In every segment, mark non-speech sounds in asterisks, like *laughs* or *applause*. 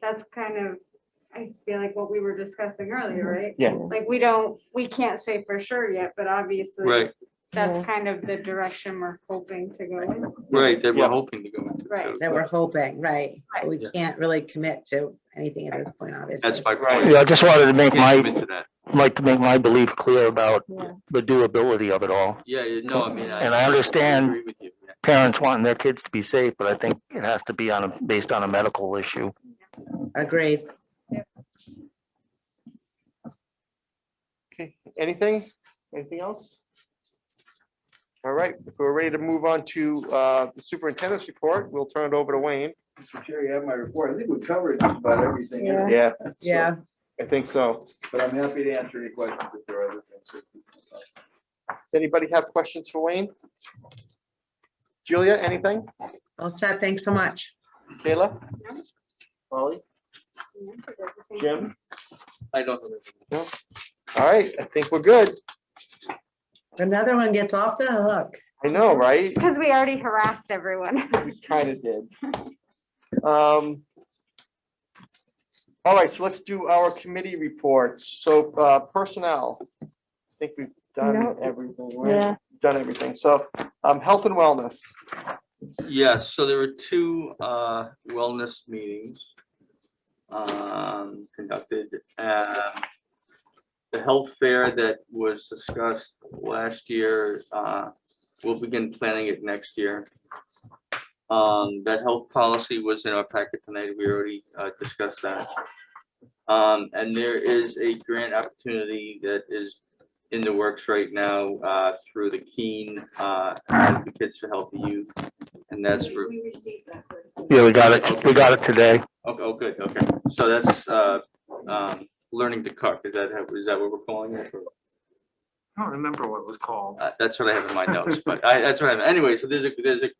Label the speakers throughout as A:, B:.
A: that's kind of, I feel like what we were discussing earlier, right?
B: Yeah.
A: Like, we don't, we can't say for sure yet, but obviously,
C: Right,
A: that's kind of the direction we're hoping to go in.
C: right, that
B: Yeah.
C: we're hoping to go into.
A: Right.
D: that we're hoping, right? But We
C: Yeah.
D: can't really commit to anything at this point, obviously.
C: That's my
B: Right.
C: point.
E: Yeah, I just wanted to make
C: Can't
E: my,
C: commit to that.
E: like to make my belief clear about
A: Yeah.
E: the doability of it all.
C: Yeah, yeah, no, I mean.
E: And I understand-
C: agree with you, yeah.
E: Parents wanting their kids to be safe, but I think it has to be on a, based on a medical issue.
D: Agreed.
B: Okay, anything, anything else? All right, if we're ready to move on to uh, the superintendent's report, we'll turn it over to Wayne.
F: Mr. Chair, you have my report. I think we covered just about everything. in it,
B: Yeah,
F: so-
D: Yeah,
B: I think so.
F: But I'm happy to answer any questions if there are other things.
B: Does anybody have questions for Wayne? Julia, anything?
D: all set. Thanks so much.
B: Kayla? Molly? Jim?
C: I don't. know.
B: All right, I think we're good.
D: Another one gets off the hook.
B: I know, right?
A: Because we already harassed everyone.
B: We kind of did. Um, All right, so let's do our committee reports. So uh, personnel, I think we've done
G: Nope.
B: everything, right?
G: Yeah,
B: done everything. So um, health and wellness.
C: Yes, so there were two uh, wellness meetings um, conducted. Um, The health fair that was discussed last year, uh, we'll begin planning it next year. Um, That health policy was in our packet tonight. We already uh, discussed that. Um, And there is a grant opportunity that is in the works right now uh, through the Keen uh, Advocates for Healthy Youth. And that's for,
E: Yeah, we got it, we got it today.
C: oh, oh, good, okay. So that's, uh, um, learning to cook. Is that, how- is that what we're calling it? or-
H: I don't remember what it was called.
C: Uh, that's what I have in my notes, but I, that's what I have. Anyway, so there's a, there's a,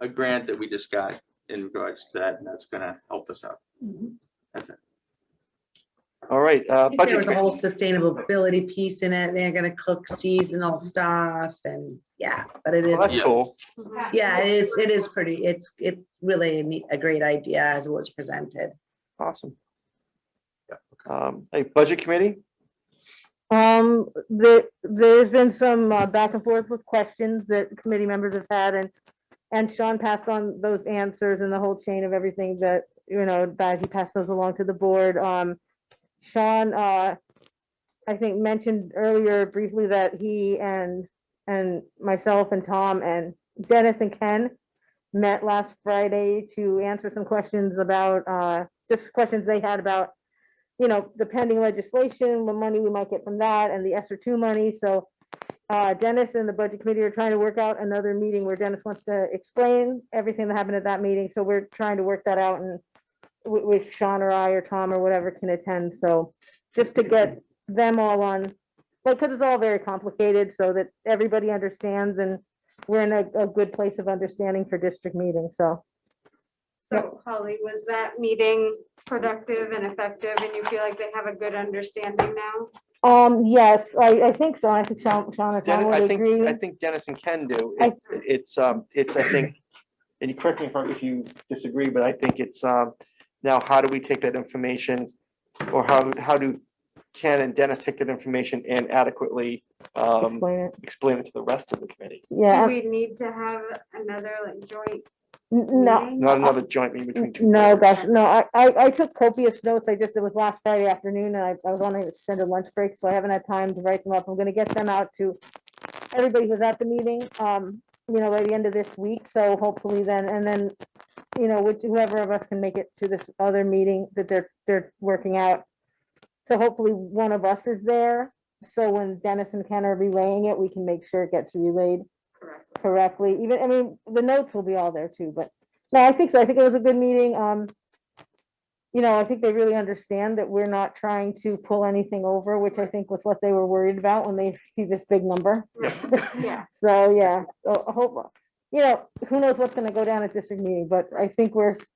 C: a grant that we just got in regards to that and that's gonna help us out. That's it.
B: All right, uh,
D: I think There
B: budget.
D: was a
B: committee.
D: whole sustainability piece in it. They're gonna cook seasonal stuff and yeah, but it
B: Well,
D: is,
B: Oh, That's
C: Yeah.
B: cool.
D: yeah, it is, it is pretty, it's, it's really a neat- a great idea as it was presented.
B: Awesome. Um, Hey, budget committee?
G: um, there, there's been some uh, back and forth with questions that committee members have had and, and Sean passed on those answers and the whole chain of everything that, you know, that he passed those along to the board. Um, Sean, uh, I think mentioned earlier briefly that he and, and myself and Tom and Dennis and Ken met last Friday to answer some questions about, uh, just questions they had about you know, the pending legislation, the money we might get from that and the ESER two money, so. Uh, Dennis and the budget committee are trying to work out another meeting where Dennis wants to explain everything that happened at that meeting, so we're trying to work that out and. With, with Sean or I or Tom or whatever can attend, so just to get them all on. Like, cause it's all very complicated so that everybody understands and we're in a, a good place of understanding for district meeting, so.
A: So Holly, was that meeting productive and effective and you feel like they have a good understanding now?
G: Um, yes, I, I think so, I think Sean, Sean and Tom
B: Dennis, I
G: would
B: think,
G: agree.
B: I think Dennis and Ken do.
G: I-
B: It- It's, um, it's, I think, and you correct me if I- if you disagree, but I think it's, um, now how do we take that information? Or how, how do Ken and Dennis take that information and adequately, um,
G: Explain it,
B: explain it to the rest of the committee?
G: yeah. uh,
A: Do we need to have another like joint
G: N- No,
A: meeting?
B: Not another joint meeting between
G: n-
B: two.
G: no,
B: committees.
G: gosh, no, I, I, I took copious notes, I just, it was last Friday afternoon, and I, I was on an extended lunch break, so I haven't had time to write them up, I'm gonna get them out to everybody who's at the meeting, um, you know, by the end of this week, so hopefully then, and then, you know, which- whoever of us can make it to this other meeting that they're, they're working out. So hopefully one of us is there, so when Dennis and Ken are relaying it, we can make sure it gets relayed
A: Correct.
G: correctly, even, I mean, the notes will be all there too, but, no, I think so, I think it was a good meeting, um. You know, I think they really understand that we're not trying to pull anything over, which I think was what they were worried about when they see this big number.
A: Yeah.
G: So, yeah, so I hope, you know, who knows what's gonna go down at district meeting, but I think we're s-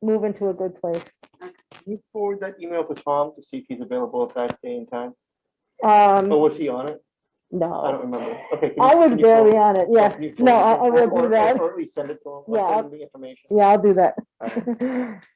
G: moving to a good place.
B: Can you forward that email to Tom to see if he's available at that day and time? Or
G: Um,
B: was he on it? Oh, I
G: no,
B: don't remember. Okay. can you-
G: I was
B: can you forward-
G: barely on it, yeah,
B: can you
G: no,
B: forward it to
G: I, I
B: him?
G: will
B: Or-
G: do
B: or-
G: that,
B: Or at least send it to him,
G: Yeah,
B: or
G: I'll-
B: send him the information.
G: yeah, I'll do *laughs*
B: Alright.
G: that.